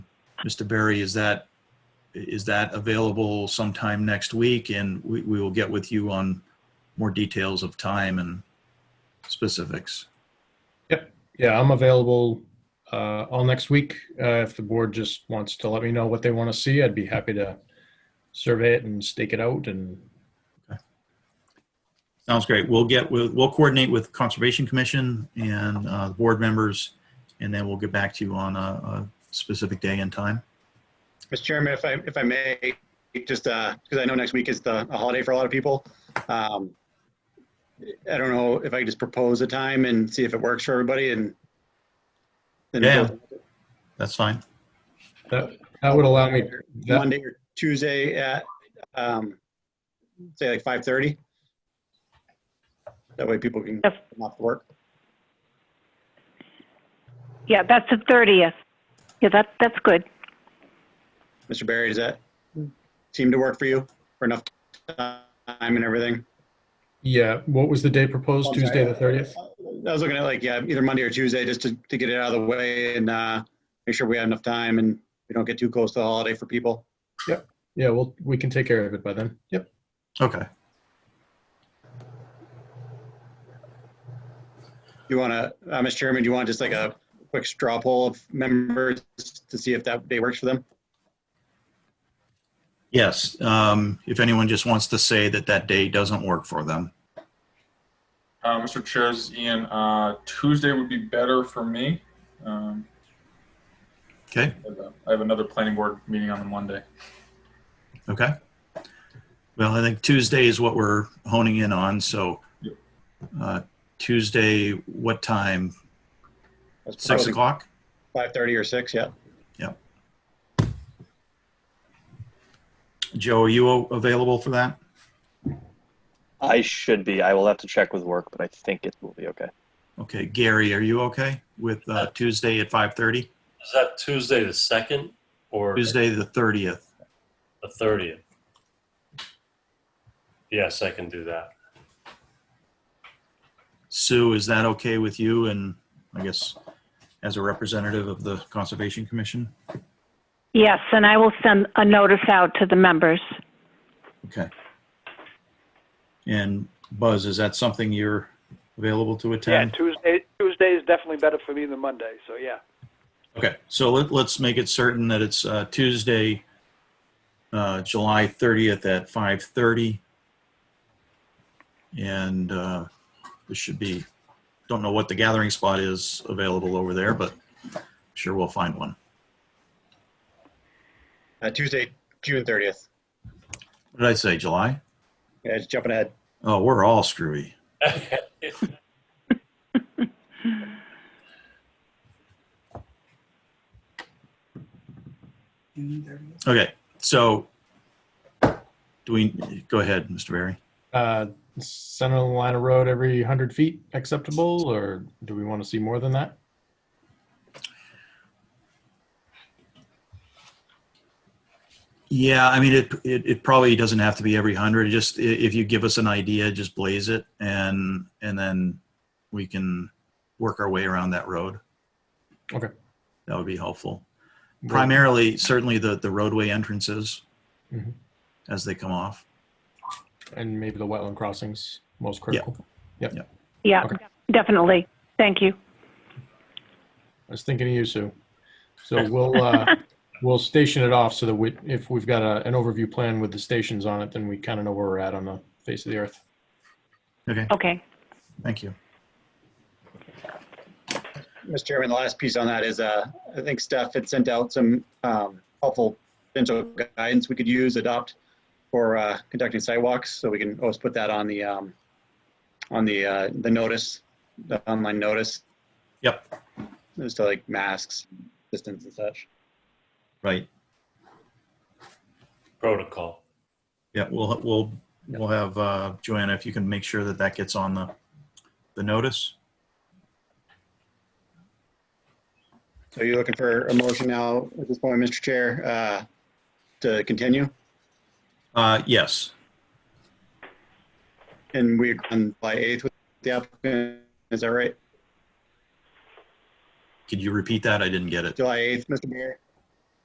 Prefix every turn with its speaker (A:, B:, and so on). A: Mr. Berry, is that, is that available sometime next week? And we, we will get with you on more details of time and specifics.
B: Yeah, I'm available uh, all next week. Uh, If the board just wants to let me know what they want to see, I'd be happy to survey it and stake it out and,
A: Sounds great. We'll get, with we'll coordinate with Conservation Commission and uh, the board members, and then we'll get back to you on a, a specific day and time.
C: Mr. Chairman, if I, if I may, just, uh, because I know next week is the, a holiday for a lot of people. Um, I don't know if I could just propose a time and see if it works for everybody and. then
A: Yeah.
C: we'll-
A: That's fine.
B: that, that would allow me, that,
C: Monday or Tuesday at, um, say like 5:30. That way people can
D: Yes.
C: come off work.
D: Yeah, that's the 30th. Yeah, that, that's good.
C: Mr. Barry, does that seem to work for you for enough time and everything?
B: yeah, what was the day proposed?
C: I'm
B: Tuesday, the
C: sorry.
B: 30th?
C: I was looking at like, yeah, either Monday or Tuesday, just to, to get it out of the way and, uh, make sure we have enough time and we don't get too close to the holiday for people.
B: Yeah, well, we can take care of it by then. Yep.
A: Okay.
C: You want to, uh, Mr. Chairman, do you want just like a quick straw poll of members to see if that day works for them?
A: Yes, um, if anyone just wants to say that that day doesn't work for them.
E: Uh, Mr. Chairs, Ian, uh, Tuesday would be better for me. Um,
A: Okay,
E: I have a- I have another planning board meeting on the Monday.
A: okay. Well, I think Tuesday is what we're honing in on, so
E: Yep.
A: uh, Tuesday, what time?
C: Let's
A: Six
C: propose
A: o'clock?
C: 5:30 or 6, yeah.
A: Joe, are you a- available for that?
F: I should be. I will have to check with work, but I think it will be okay.
A: Okay, Gary, are you okay with uh, Tuesday at 5:30?
G: Is that Tuesday the second or
A: Tuesday, the 30th.
G: the thirtieth? Yes, I can do that.
A: Sue, is that okay with you and I guess as a representative of the Conservation Commission?
D: Yes, and I will send a notice out to the members.
A: Okay. And Buzz, is that something you're available to
H: Yeah,
A: attend?
H: Tuesday, Tuesday is definitely better for me than Monday, so yeah.
A: Okay, so let, let's make it certain that it's uh, Tuesday, uh, July 30th at 5:30. And uh, this should be, don't know what the gathering spot is available over there, but sure we'll find one.
C: Uh, Tuesday, June 30th.
A: What did I say, July?
C: Yeah, just jumping ahead.
A: Oh, we're all screwy. Okay, so do we, go ahead, Mr. Barry.
B: Uh, Center of the line of road every 100 feet acceptable, or do we want to see more than that?
A: Yeah, I mean, it, it, it probably doesn't have to be every hundred. Just i- if you give us an idea, just blaze it and, and then we can work our way around that road.
B: Okay.
A: That would be helpful. Primarily, certainly the, the roadway entrances
B: Mhm.
A: as they come off.
B: And maybe the wetland crossings, most critical.
D: Yeah,
B: Okay.
D: definitely. Thank you.
B: I was thinking of you, Sue. So we'll, uh, we'll station it off so that we, if we've got a, an overview plan with the stations on it, then we kind of know where we're at on the face of the earth.
A: Okay,
D: Okay.
A: Oh. thank you.
C: Mr. Chairman, the last piece on that is, uh, I think Steph had sent out some um, helpful potential guidance we could use, adopt for uh, conducting sidewalks, so we can always put that on the, um, on the, uh, the notice, the online notice,
A: Yep,
C: just to like masks, distance and such.
A: right.
G: Protocol.
A: Yeah, we'll, we'll, we'll have, uh, Joanna, if you can make sure that that gets on the, the notice.
C: So you're looking for a motion now at this point, Mr. Chair, uh, to continue?
A: Uh, yes,
C: And we, on July 8th with the applicant, is that right?
A: could you repeat that? I didn't get it.
C: July 8th, Mr. Mayor?